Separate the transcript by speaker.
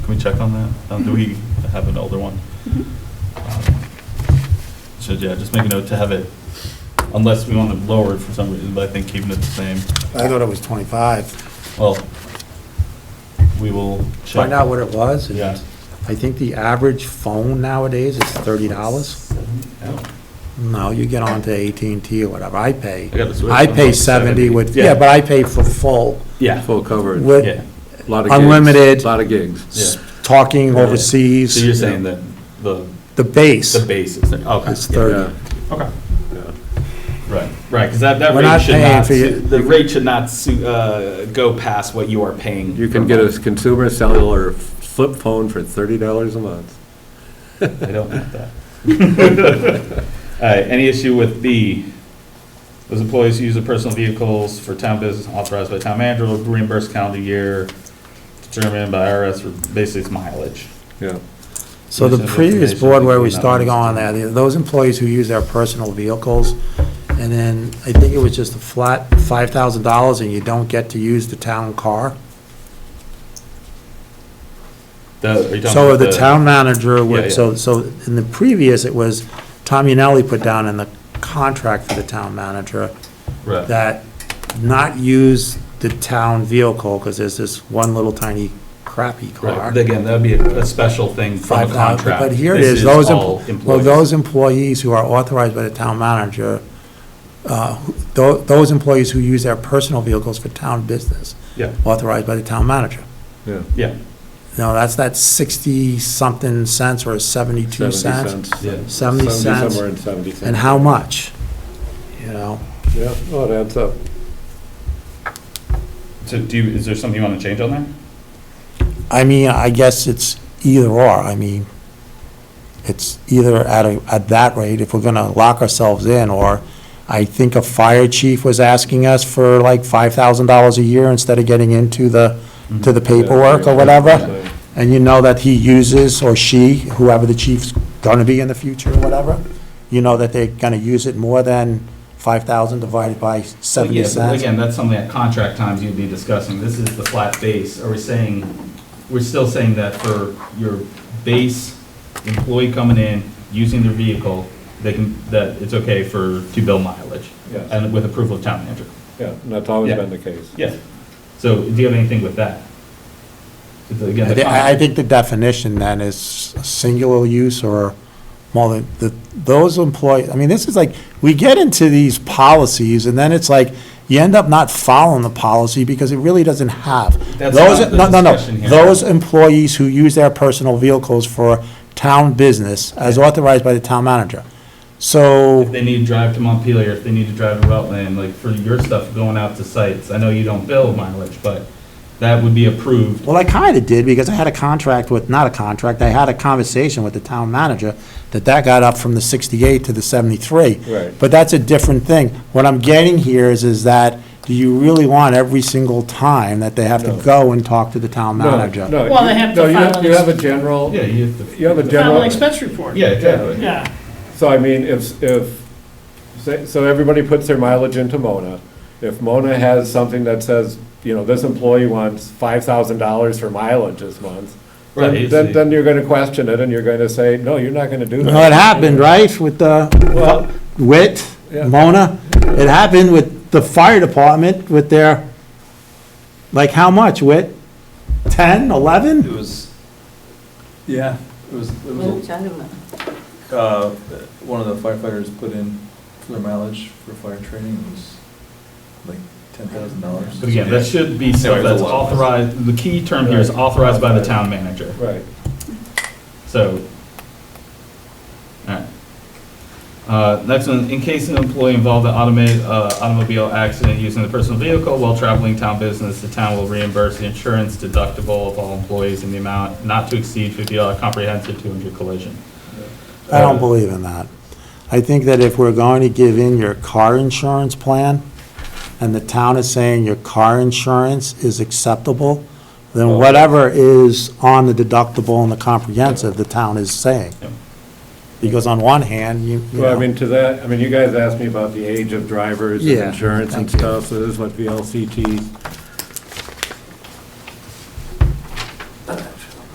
Speaker 1: check on that. Uh, Do we have an older one? Um, So, yeah, just make a note to have it, unless we want to lower it for some reason, but I think keeping it the same,
Speaker 2: I thought it was 25.
Speaker 1: well, we will check.
Speaker 2: Find out what it was. and
Speaker 1: Yeah.
Speaker 2: I think the average phone nowadays is $30.
Speaker 1: Oh.
Speaker 2: No, you get onto at and T or whatever, I pay.
Speaker 1: I got the Swiss
Speaker 2: I
Speaker 1: one.
Speaker 2: pay 70 with,
Speaker 1: Yeah.
Speaker 2: yeah, but I pay for full,
Speaker 1: Yeah,
Speaker 3: Full coverage, lot
Speaker 2: with
Speaker 1: yeah.
Speaker 3: of gigs.
Speaker 2: unlimited-
Speaker 3: Lot of gigs.
Speaker 1: Yeah.
Speaker 2: talking
Speaker 1: So you're
Speaker 2: overseas,
Speaker 1: saying that the,
Speaker 2: the base
Speaker 1: the base is, okay.
Speaker 2: is 30.
Speaker 3: Yeah.
Speaker 1: Okay. Right, right, because that, that
Speaker 2: We're not
Speaker 1: rate should
Speaker 2: paying
Speaker 1: not,
Speaker 2: for
Speaker 1: su-
Speaker 2: you-
Speaker 1: the rate should not su- uh, go past what you are paying.
Speaker 3: You can
Speaker 1: per
Speaker 3: get a
Speaker 1: month.
Speaker 3: consumer cellular flip phone for thirty dollars a month.
Speaker 1: I don't want that. All right, any issue with B? Those employees who use their personal vehicles for town business authorized by town manager will reimburse calendar year determined by IRS for basically it's mileage.
Speaker 3: Yeah.
Speaker 2: So the
Speaker 1: Yes, I
Speaker 2: previous
Speaker 1: recommend
Speaker 2: board where we
Speaker 1: something
Speaker 2: started
Speaker 1: not
Speaker 2: going there, the- those employees who use their personal vehicles, and then I think it was just a flat $5,000 and you don't get to use the town car.
Speaker 1: The- are you talking
Speaker 2: So
Speaker 1: about
Speaker 2: the town manager
Speaker 1: Yeah,
Speaker 2: would,
Speaker 1: yeah.
Speaker 2: so, so in the previous, it was Tom Unelli put down in the contract for the town manager
Speaker 1: Right.
Speaker 2: that not use the town vehicle because there's this one little tiny crappy car.
Speaker 1: Right, again, that'd be a, a special thing from
Speaker 2: Five
Speaker 1: the
Speaker 2: thousand,
Speaker 1: contract.
Speaker 2: but here it
Speaker 1: This
Speaker 2: is, those,
Speaker 1: all
Speaker 2: em- well,
Speaker 1: employees.
Speaker 2: those employees who are authorized by the town manager, uh, who- tho- those employees who use their personal vehicles for town business,
Speaker 1: Yeah,
Speaker 2: authorized by the town manager.
Speaker 3: Yeah.
Speaker 1: yeah,
Speaker 2: Now, that's that sixty-something cents or seventy-two
Speaker 3: 70
Speaker 2: cents.
Speaker 1: Yeah.
Speaker 2: 70 cents.
Speaker 3: Somewhere in seventy cents.
Speaker 2: And how much, you know?
Speaker 3: Yeah, well, it adds up.
Speaker 1: so do you, is there something you want to change on there?
Speaker 2: I mean, I guess it's either or, I mean, it's either at a, at that rate, if we're gonna lock ourselves in, or I think a fire chief was asking us for like five thousand dollars a year instead of getting into the, to the
Speaker 3: Mm-hmm.
Speaker 2: paperwork or whatever, and you know that he uses, or she, whoever the chief's gonna be in the future or whatever, you know that they're gonna use it more than five thousand divided by seventy
Speaker 1: Yeah, but
Speaker 2: cents.
Speaker 1: Again, that's something at contract times you'd be discussing. This is the flat base. Are we saying, we're still saying that for your base employee coming in, using their vehicle, they can, that it's okay for, to bill mileage?
Speaker 3: Yes.
Speaker 1: And with approval of town manager?
Speaker 3: Yeah, and that's always
Speaker 1: Yeah.
Speaker 3: been the case.
Speaker 1: Yes. So do you have anything with that? Because again,
Speaker 2: I
Speaker 1: the
Speaker 2: thi- I I
Speaker 1: contract-
Speaker 2: think the definition then is singular use or more than, the- those employees, I mean, this is like, we get into these policies and then it's like, you end up not following the policy because it really doesn't have.
Speaker 1: That's
Speaker 2: Those-
Speaker 1: not the
Speaker 2: no, no, no.
Speaker 1: discussion here.
Speaker 2: Those employees who use their personal vehicles for town business as authorized by the town manager. So.
Speaker 1: If they need to drive to Montpelier, if they need to drive to Rutland, like for your stuff going out to sites, I know you don't bill mileage, but that would be approved.
Speaker 2: Well, I kind of did, because I had a contract with, not a contract, I had a conversation with the town manager, that that got up from the 68 to the 73.
Speaker 3: Right.
Speaker 2: But that's a different thing. What I'm getting here is, is that, do you really want every single time that they have to
Speaker 3: No.
Speaker 2: go and talk to the town
Speaker 3: No,
Speaker 2: manager?
Speaker 3: no,
Speaker 4: Well, they
Speaker 3: you-
Speaker 4: have
Speaker 3: no,
Speaker 4: to
Speaker 3: you
Speaker 4: file
Speaker 3: You
Speaker 4: this-
Speaker 3: have a general,
Speaker 1: Yeah, you have to.
Speaker 3: You have a general-
Speaker 4: Final expense report.
Speaker 1: Yeah, exactly.
Speaker 4: Yeah.
Speaker 3: so I mean, if, if, say- so everybody puts their mileage into Mona. If Mona has something that says, you know, this employee wants five thousand dollars for mileage this month,
Speaker 1: Right,
Speaker 3: then,
Speaker 1: it's
Speaker 3: then-
Speaker 1: the-
Speaker 3: then you're gonna question it and you're gonna say, no, you're not gonna do that.
Speaker 2: Well, it happened, right, with
Speaker 3: Well-
Speaker 2: the Wit,
Speaker 3: Yeah.
Speaker 2: Mona? It happened with the fire department with their, like, how much, Wit? 10, 11?
Speaker 5: It was, yeah, it was, it
Speaker 6: What are we
Speaker 5: was,
Speaker 6: talking about?
Speaker 5: uh, one of the firefighters put in for their mileage for fire training it was like ten thousand dollars.
Speaker 1: But again, that should be
Speaker 5: Yeah,
Speaker 1: stuff
Speaker 5: it's a
Speaker 1: that's
Speaker 5: lot.
Speaker 1: authorized, the key term here is
Speaker 3: Right.
Speaker 1: authorized by the town manager,
Speaker 3: Right.
Speaker 1: so. Alright. Uh, next one, in case an employee involved in automated, uh, automobile accident using the personal vehicle while traveling town business, the town will reimburse the insurance deductible of all employees in the amount not to exceed fifty dollar comprehensive two hundred collision.
Speaker 2: I
Speaker 3: Um,
Speaker 2: don't believe in that. I think that if we're going to give in your car insurance plan, and the town is saying your car insurance is acceptable, then whatever is on the deductible and the comprehensive, the town is saying.
Speaker 1: Yeah.
Speaker 2: Because on one hand, you, you
Speaker 3: Well, I
Speaker 2: know,
Speaker 3: mean, to that, I mean, you guys asked me about the age of drivers and
Speaker 2: Yeah,
Speaker 3: insurance and
Speaker 2: thank you.
Speaker 3: stuff, so this is what VLCT